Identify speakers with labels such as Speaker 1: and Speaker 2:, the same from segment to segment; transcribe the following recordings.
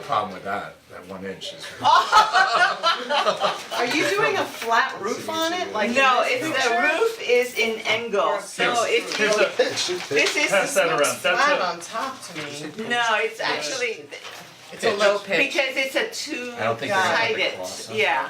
Speaker 1: problem with that, that one inch is.
Speaker 2: Oh,
Speaker 3: Are you doing a flat roof on it, like in
Speaker 4: No,
Speaker 3: this
Speaker 4: it's the
Speaker 3: picture?
Speaker 4: roof is in angle, so it's
Speaker 5: Here's a,
Speaker 4: this is
Speaker 5: pass that around, that's a.
Speaker 3: Flat on top to me.
Speaker 4: no, it's actually
Speaker 2: It's a low pitch.
Speaker 4: because it's a two
Speaker 1: I don't think they're gonna have the
Speaker 4: sided,
Speaker 1: cross, huh?
Speaker 4: yeah.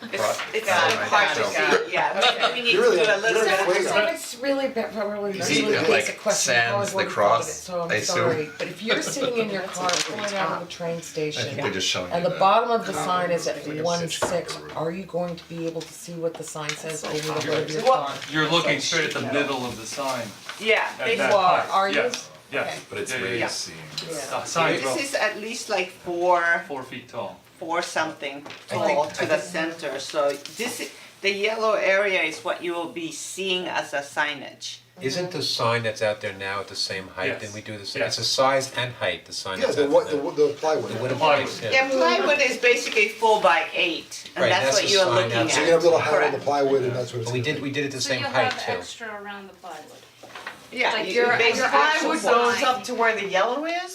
Speaker 4: It's
Speaker 1: Right.
Speaker 4: it's
Speaker 1: Got
Speaker 4: kind
Speaker 1: it,
Speaker 4: of hard to
Speaker 1: got
Speaker 3: it.
Speaker 4: see, yeah, we need to
Speaker 6: You're
Speaker 4: do
Speaker 6: really-
Speaker 4: a
Speaker 6: you're
Speaker 4: little
Speaker 6: really
Speaker 4: bit.
Speaker 6: way
Speaker 2: So it's really, ba- probably really
Speaker 1: it,
Speaker 2: basic
Speaker 1: like,
Speaker 2: question, I
Speaker 1: sans
Speaker 2: always
Speaker 1: the
Speaker 2: wanted to call it,
Speaker 1: cross,
Speaker 2: so
Speaker 1: I
Speaker 2: I'm
Speaker 1: assume?
Speaker 2: sorry, but if you're sitting in your car pulling out of a train
Speaker 1: I
Speaker 2: station
Speaker 1: think they're just showing
Speaker 2: and
Speaker 1: you
Speaker 2: the
Speaker 1: the
Speaker 2: bottom of the sign is
Speaker 1: It's
Speaker 2: at
Speaker 1: like a
Speaker 2: one
Speaker 1: pitch cock
Speaker 2: six,
Speaker 1: or-
Speaker 2: are you going to be able to see what the sign says over the hood of your car?
Speaker 5: You're looking straight at the middle of the sign,
Speaker 4: Yeah,
Speaker 5: at
Speaker 4: big
Speaker 5: that
Speaker 4: wall.
Speaker 5: height,
Speaker 2: are you?
Speaker 5: yes, yes.
Speaker 1: But it's
Speaker 5: Yeah, yeah,
Speaker 1: really
Speaker 5: yeah.
Speaker 1: seeing.
Speaker 5: The sign's about
Speaker 4: This is at least like four,
Speaker 5: four feet tall.
Speaker 4: four something tall to the center, so this, i- the yellow area is what you will be seeing as a signage.
Speaker 7: Isn't the sign that's out there now at the same height, and we do the same, it's
Speaker 5: Yes.
Speaker 7: a size and height, the sign
Speaker 6: Yeah,
Speaker 7: that's
Speaker 6: the
Speaker 7: out there now?
Speaker 6: what, the wo- the plywood.
Speaker 7: The wood
Speaker 6: So
Speaker 7: appliance, yeah.
Speaker 4: Yeah, plywood is basically four by eight, and
Speaker 7: Right,
Speaker 4: that's
Speaker 7: that's
Speaker 4: what
Speaker 7: the
Speaker 4: you're
Speaker 7: sign
Speaker 4: looking at.
Speaker 7: outside. So
Speaker 6: you have a little hat on the
Speaker 4: Correct.
Speaker 6: plywood and that's what it's.
Speaker 7: But we did, we did it the same height
Speaker 8: So
Speaker 7: too.
Speaker 8: you'll have extra around the plywood.
Speaker 4: Yeah,
Speaker 8: Like
Speaker 4: you-
Speaker 8: your-
Speaker 4: you
Speaker 8: your
Speaker 4: basically-
Speaker 8: eye
Speaker 3: Plywood
Speaker 8: would
Speaker 3: goes up to where the yellow is,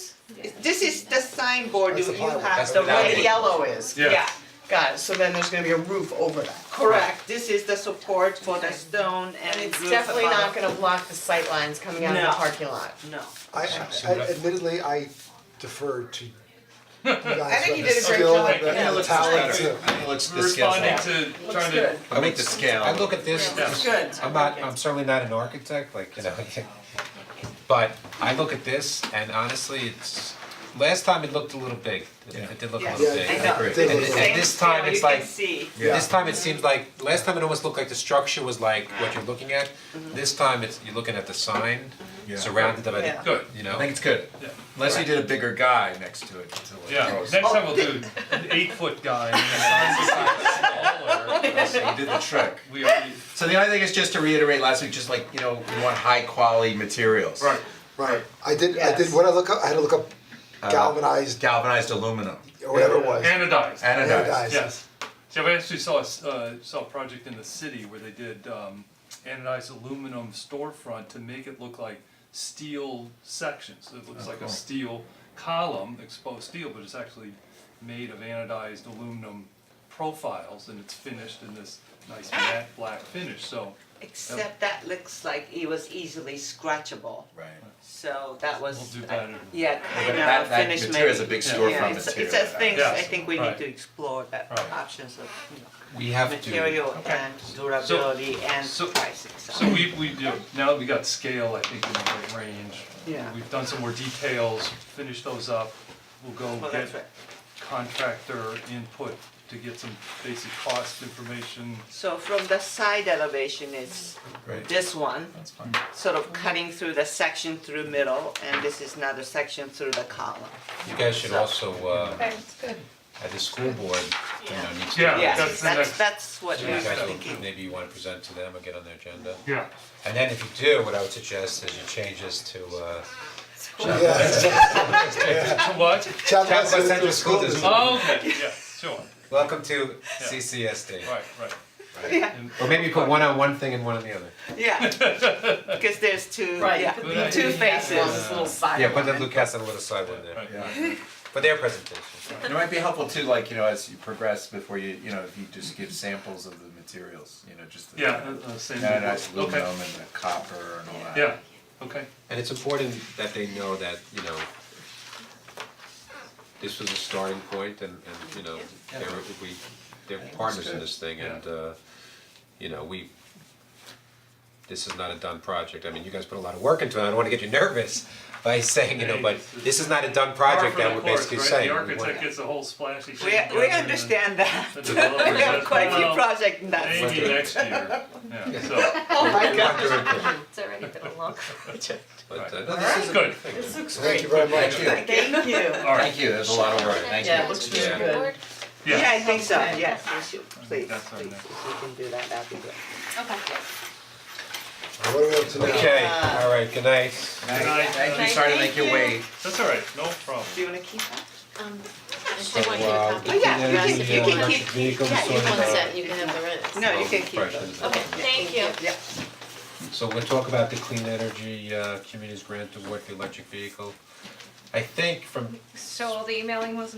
Speaker 4: This is the signboard, you
Speaker 6: That's the
Speaker 4: you
Speaker 6: plywood.
Speaker 4: have
Speaker 7: That's
Speaker 4: the
Speaker 7: the
Speaker 3: where
Speaker 4: red,
Speaker 3: the
Speaker 7: plywood.
Speaker 3: yellow is.
Speaker 5: Yeah.
Speaker 4: yeah,
Speaker 3: Got it, so then there's gonna be a roof over that.
Speaker 4: correct, this is the support for the stone and
Speaker 3: And it's
Speaker 4: roof
Speaker 3: definitely not
Speaker 4: above.
Speaker 3: gonna block the sight lines coming out of the
Speaker 4: No.
Speaker 3: parking lot.
Speaker 4: No,
Speaker 6: I I- admittedly, I defer to you guys who
Speaker 3: I think you
Speaker 6: have
Speaker 3: did
Speaker 6: the
Speaker 3: a great
Speaker 6: skill
Speaker 3: job.
Speaker 6: and
Speaker 3: Yeah, it
Speaker 6: the
Speaker 3: looks
Speaker 6: talent
Speaker 1: better.
Speaker 6: to.
Speaker 1: I mean, let's
Speaker 5: We're
Speaker 1: discuss
Speaker 5: responding
Speaker 1: that.
Speaker 5: to, trying to,
Speaker 1: I make the scale.
Speaker 7: I look at this,
Speaker 5: Yeah.
Speaker 3: Good.
Speaker 7: I'm not, I'm certainly not an architect, like, you know, but I look at this and honestly, it's, last time it looked a little big, it did look a
Speaker 4: Yeah.
Speaker 7: little
Speaker 6: Yeah,
Speaker 7: big.
Speaker 4: I
Speaker 6: I
Speaker 4: know.
Speaker 6: agree.
Speaker 7: And
Speaker 6: Yeah.
Speaker 7: and this time it's like,
Speaker 4: see.
Speaker 6: Yeah.
Speaker 7: This time it seems like, last time it almost looked like the structure was like what you're looking at. This time it's, you're looking at the sign
Speaker 1: Yeah.
Speaker 7: surrounded by
Speaker 3: Yeah.
Speaker 7: the,
Speaker 5: Good.
Speaker 7: you
Speaker 1: I
Speaker 7: know?
Speaker 1: think it's good,
Speaker 5: Yeah.
Speaker 1: unless you did a bigger guy next to it to like
Speaker 5: yeah,
Speaker 1: gross.
Speaker 5: next time we'll do an eight foot guy and the sign's
Speaker 1: So you did the trick.
Speaker 5: smaller. We are,
Speaker 1: So the only thing is just to reiterate last week, just like, you know, we want high quality materials.
Speaker 5: right,
Speaker 6: Right, I did, I did,
Speaker 3: Yes.
Speaker 6: when I look up, I had to look up
Speaker 7: Uh,
Speaker 6: galvanized,
Speaker 1: Galvanized aluminum,
Speaker 6: or whatever it was.
Speaker 5: anodized.
Speaker 1: anodized.
Speaker 6: Anodized.
Speaker 5: Yes. Yeah, we actually saw, a s- uh, saw a project in the city where they did um, anodized aluminum storefront to make it look like steel sections. It looks like a steel column, exposed steel, but it's actually made of anodized aluminum profiles and it's finished in this nice matte black finish, so.
Speaker 4: Except that looks like it was easily scratchable,
Speaker 1: Right.
Speaker 4: so that was,
Speaker 5: We'll do better.
Speaker 4: yeah,
Speaker 1: But
Speaker 4: kind
Speaker 1: that
Speaker 4: of
Speaker 1: that
Speaker 4: finished
Speaker 1: material is a
Speaker 4: maybe.
Speaker 1: big storefront material.
Speaker 4: Yeah, it's, it's a things, I
Speaker 5: Yes.
Speaker 4: think we need
Speaker 5: Right.
Speaker 4: to explore that
Speaker 5: Right.
Speaker 4: options of, you know,
Speaker 7: We have to.
Speaker 4: material and durability and
Speaker 5: so-
Speaker 4: pricing,
Speaker 5: So we, we, do now that we got scale, I think, in the right range.
Speaker 3: Yeah.
Speaker 5: We've done some more details, finish those up, we'll go
Speaker 4: Well,
Speaker 5: get
Speaker 4: Oh, that's right.
Speaker 5: contractor input to get some basic cost information.
Speaker 4: So from the side elevation is
Speaker 1: Right.
Speaker 4: this one,
Speaker 1: That's fine.
Speaker 4: sort of cutting through the section through middle, and this is another section through the column.
Speaker 7: You guys should also, uh,
Speaker 2: It's good.
Speaker 7: at the school board, you know, needs to.
Speaker 5: Yeah.
Speaker 4: Yeah,
Speaker 5: that's the
Speaker 4: that's,
Speaker 5: next-
Speaker 4: that's what
Speaker 7: You
Speaker 4: we're
Speaker 7: guys
Speaker 4: thinking.
Speaker 7: don't- maybe you wanna present to them or get on their agenda.
Speaker 5: Yeah.
Speaker 7: And then if you do, what I would suggest is you change this to, uh,
Speaker 5: What?
Speaker 6: Chapel
Speaker 7: Chapel Central School District.
Speaker 5: Oh, okay, yeah, sure,
Speaker 7: welcome to CCSD.
Speaker 5: right, right.
Speaker 7: Or maybe you put one on one thing and one on the other.
Speaker 4: Yeah, because there's two,
Speaker 3: Right,
Speaker 4: yeah,
Speaker 3: but
Speaker 5: then
Speaker 4: two
Speaker 5: you
Speaker 4: faces.
Speaker 3: little side
Speaker 7: Yeah, put the Luke Castle little side one there,
Speaker 1: Yeah.
Speaker 7: for their presentation.
Speaker 1: And it might be helpful too, like, you know, as you progress before you, you know, if you just give samples of the materials, you know, just the
Speaker 5: Yeah, uh, uh, same.
Speaker 1: anodized
Speaker 5: thing.
Speaker 1: aluminum
Speaker 5: Okay,
Speaker 1: and the copper and all that.
Speaker 5: yeah, okay,
Speaker 7: And it's important that they know that, you know, this was a starting point and and, you know, they're we they're partners in this thing and uh, you know, we this is not a done project, I mean, you guys put a lot of work into it, I don't wanna get you nervous by saying, you know, but this is not a done project that we're basically saying.
Speaker 5: Par for
Speaker 7: We
Speaker 5: the course, right, the
Speaker 7: wanna-
Speaker 5: architect gets a whole splashy. sheet
Speaker 4: We,
Speaker 5: together
Speaker 4: we
Speaker 5: and
Speaker 4: understand that.
Speaker 5: the
Speaker 4: We
Speaker 5: developer
Speaker 4: have
Speaker 5: says,
Speaker 4: quite a few
Speaker 5: "Well,
Speaker 4: projects in that.
Speaker 5: Maybe next year, yeah, so.
Speaker 7: we want their input.
Speaker 8: It's already been a long project.
Speaker 7: But uh, no, this
Speaker 5: This is good.
Speaker 6: Thank you very much.
Speaker 1: Thank you.
Speaker 3: Thank you.
Speaker 5: All right.
Speaker 1: Thank you, that's a lot of work, thank you.
Speaker 3: Yeah, it looks
Speaker 7: really
Speaker 8: Yeah.
Speaker 3: good.
Speaker 8: Board?
Speaker 5: Yeah.
Speaker 4: Yeah, I think so, yes, we should, please,
Speaker 5: that's our
Speaker 4: please,
Speaker 5: next.
Speaker 4: if we can do that, that'd be good.
Speaker 8: Okay.
Speaker 6: What are we up to now?
Speaker 7: Okay, all right, good night.
Speaker 1: Thank
Speaker 5: night.
Speaker 1: Thank you, sorry to make you wait.
Speaker 5: That's all right, no problem.
Speaker 4: Do you wanna keep that?
Speaker 9: Um,
Speaker 7: So,
Speaker 9: I want you to
Speaker 7: uh,
Speaker 9: copy.
Speaker 4: Oh, yeah, you
Speaker 7: then
Speaker 4: can,
Speaker 7: the,
Speaker 4: you
Speaker 7: uh,
Speaker 4: can
Speaker 7: electric
Speaker 4: keep,
Speaker 7: vehicles
Speaker 4: yeah, you
Speaker 7: sorted
Speaker 9: One
Speaker 7: out.
Speaker 9: set, you can have the rest.
Speaker 4: no, you can keep
Speaker 7: Questions.
Speaker 4: those.
Speaker 9: Okay, thank you.
Speaker 4: Yeah,
Speaker 7: So we'll talk about the clean energy uh communities grant award for electric vehicle. I think from
Speaker 8: So all the emailing was